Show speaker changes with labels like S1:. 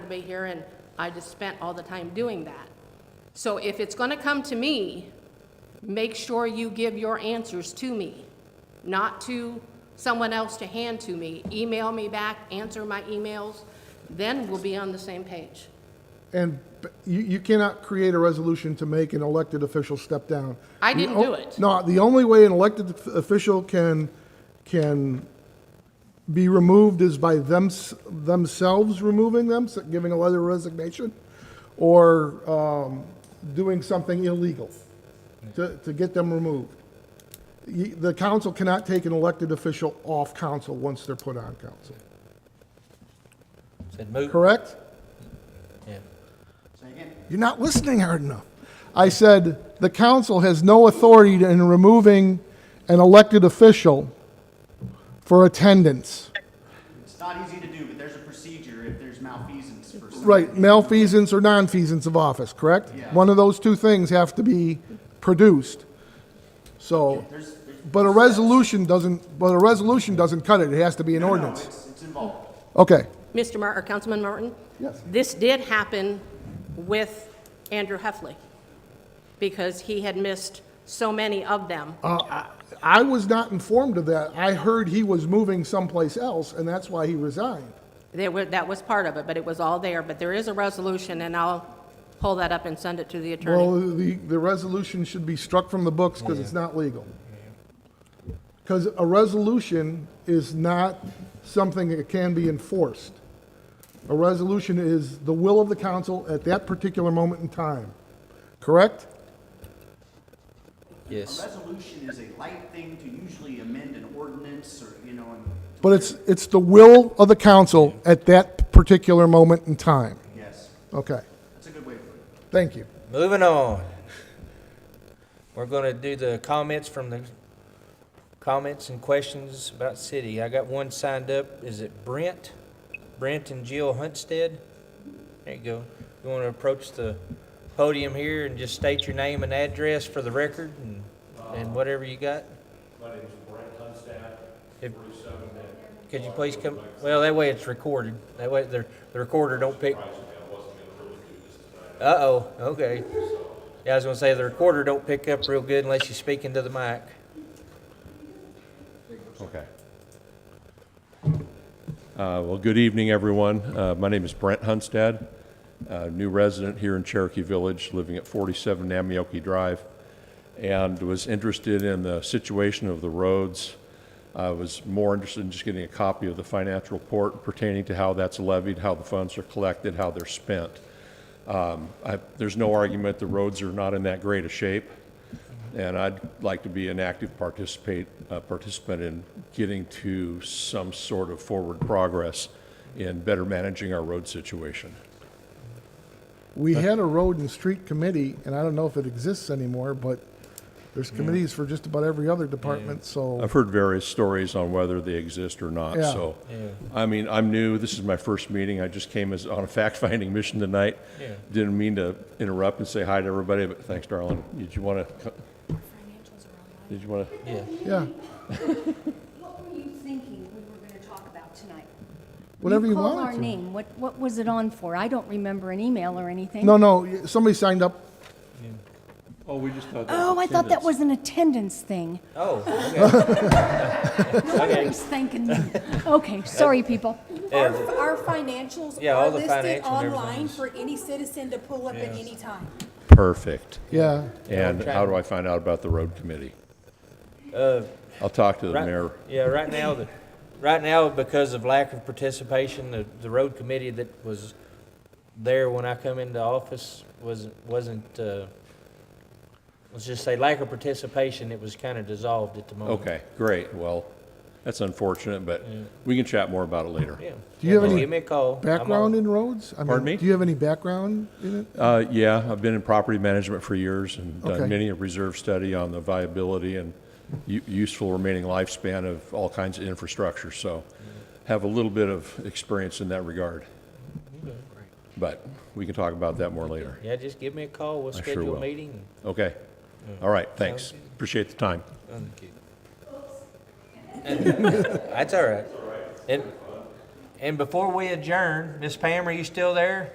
S1: survey here, and I just spent all the time doing that. So if it's gonna come to me, make sure you give your answers to me, not to someone else to hand to me. Email me back, answer my emails, then we'll be on the same page.
S2: And b- you, you cannot create a resolution to make an elected official step down.
S1: I
S2: The
S1: didn't
S2: o-
S1: do it.
S2: No, the only way an elected f- official can, can be removed is by thems, themselves removing them, so giving a letter of resignation, or, um, doing something illegal to, to get them removed. You- The council cannot take an elected official off council once they're put on council,
S3: Said move.
S2: correct?
S3: Yeah.
S2: You're not listening hard enough. I said, the council has no authority to- in removing an elected official for attendance.
S4: It's not easy to do, but there's a procedure if there's malfeasance for some.
S2: Right, malfeasance or nonfeasance of office, correct?
S4: Yeah.
S2: One of those two things have to be produced. So,
S4: There's, there's.
S2: but a resolution doesn't, but a resolution doesn't cut it. It has to be an
S4: No, no,
S2: ordinance.
S4: It's, it's involved.
S2: Okay.
S1: Mr. Mar, or Councilman Martin?
S2: Yes.
S1: This did happen with Andrew Heffley, because he had missed so many of them.
S2: I was not informed of that. I heard he was moving someplace else, and that's why he resigned.
S1: There were, that was part of it, but it was all there, but there is a resolution, and I'll pull that up and send it to the
S2: Well,
S1: attorney.
S2: the, the resolution should be struck from the books because it's not legal. Because a resolution is not something that can be enforced. A resolution is the will of the council at that particular moment in time, correct?
S4: A
S3: Yes.
S4: resolution is a light thing to usually amend an ordinance or, you know, and,
S2: But it's, it's the will of the council at that particular moment in time.
S4: yes,
S2: Okay,
S4: that's a good way to put it.
S2: thank you.
S3: Moving on. We're gonna do the comments from the comments and questions about city. I got one signed up. Is it Brent? Brent and Jill Huntsted? There you go. You wanna approach the podium here and just state your name and address for the record and, and whatever you got?
S5: Uh, My name is Brent Hunstad,
S3: If-
S5: forty-seven minute.
S3: Could you please come, well, that way it's recorded. That way the, the recorder don't pick. Uh-oh, okay. Yeah, I was gonna say, the recorder don't pick up real good unless you speak into the mic.
S5: Okay. Uh, Well, good evening, everyone. Uh, My name is Brent Hunstad, uh, new resident here in Cherokee Village, living at 47 Namioke Drive, and was interested in the situation of the roads. I was more interested in just getting a copy of the financial report pertaining to how that's levied, how the funds are collected, how they're spent. Um, I- There's no argument the roads are not in that great a shape, and I'd like to be an active participate, uh, participant in getting to some sort of forward progress in better managing our road situation.
S2: We had a road and street committee, and I don't know if it exists anymore, but there's committees for just about every other department, so.
S5: I've heard various stories on whether they exist or not,
S2: Yeah.
S5: so. I mean, I'm new, this is my first meeting, I just came as, on a fact-finding mission tonight.
S3: Yeah.
S5: Didn't mean to interrupt and say hi to everybody, but thanks, darling. Did you want to, did you want to?
S3: Yeah.
S2: Yeah,
S6: What were you thinking we were going to talk about tonight?
S2: whatever you
S6: called our
S2: want. to.
S6: name. What, what was it on for? I don't remember an email or anything.
S2: No, no, y- somebody signed up.
S5: Oh, we just thought.
S6: Oh, I thought that was an attendance thing.
S3: Oh, okay.
S6: I was thinking, okay, sorry, people.
S7: Our, our financials
S3: Yeah, all
S7: are
S3: the
S7: listed
S3: financials and everything
S7: online
S3: is-
S7: for any citizen to pull up at any time.
S5: Perfect.
S2: Yeah,
S5: And
S3: Okay.
S5: how do I find out about the road committee?
S3: Uh,
S5: I'll talk to the
S3: Right-
S5: mayor.
S3: Yeah, right now, the, right now, because of lack of participation, the, the road committee that was there when I come into office wasn't, wasn't, uh, let's just say lack of participation, it was kind of dissolved at the moment.
S5: Okay, great. Well, that's unfortunate, but we can chat more about it later.
S3: Yeah.
S2: Do you have
S3: Well,
S2: any
S3: Give me a call. I'm all-
S2: background in roads? I mean,
S5: Pardon me?
S2: Do you have any background in it?
S5: Uh, yeah, I've been in property management for years and
S2: Okay.
S5: done many a reserve study on the viability and u- useful remaining lifespan of all kinds of infrastructure, so have a little bit of experience in that regard. But we can talk about that more later.
S3: Yeah, just give me a call. We'll
S5: sure
S3: schedule
S5: will.
S3: a meeting.
S5: Okay. All right, thanks. Appreciate the time.
S3: That's all right. And, And before we adjourn, Miss Pam, are you still there?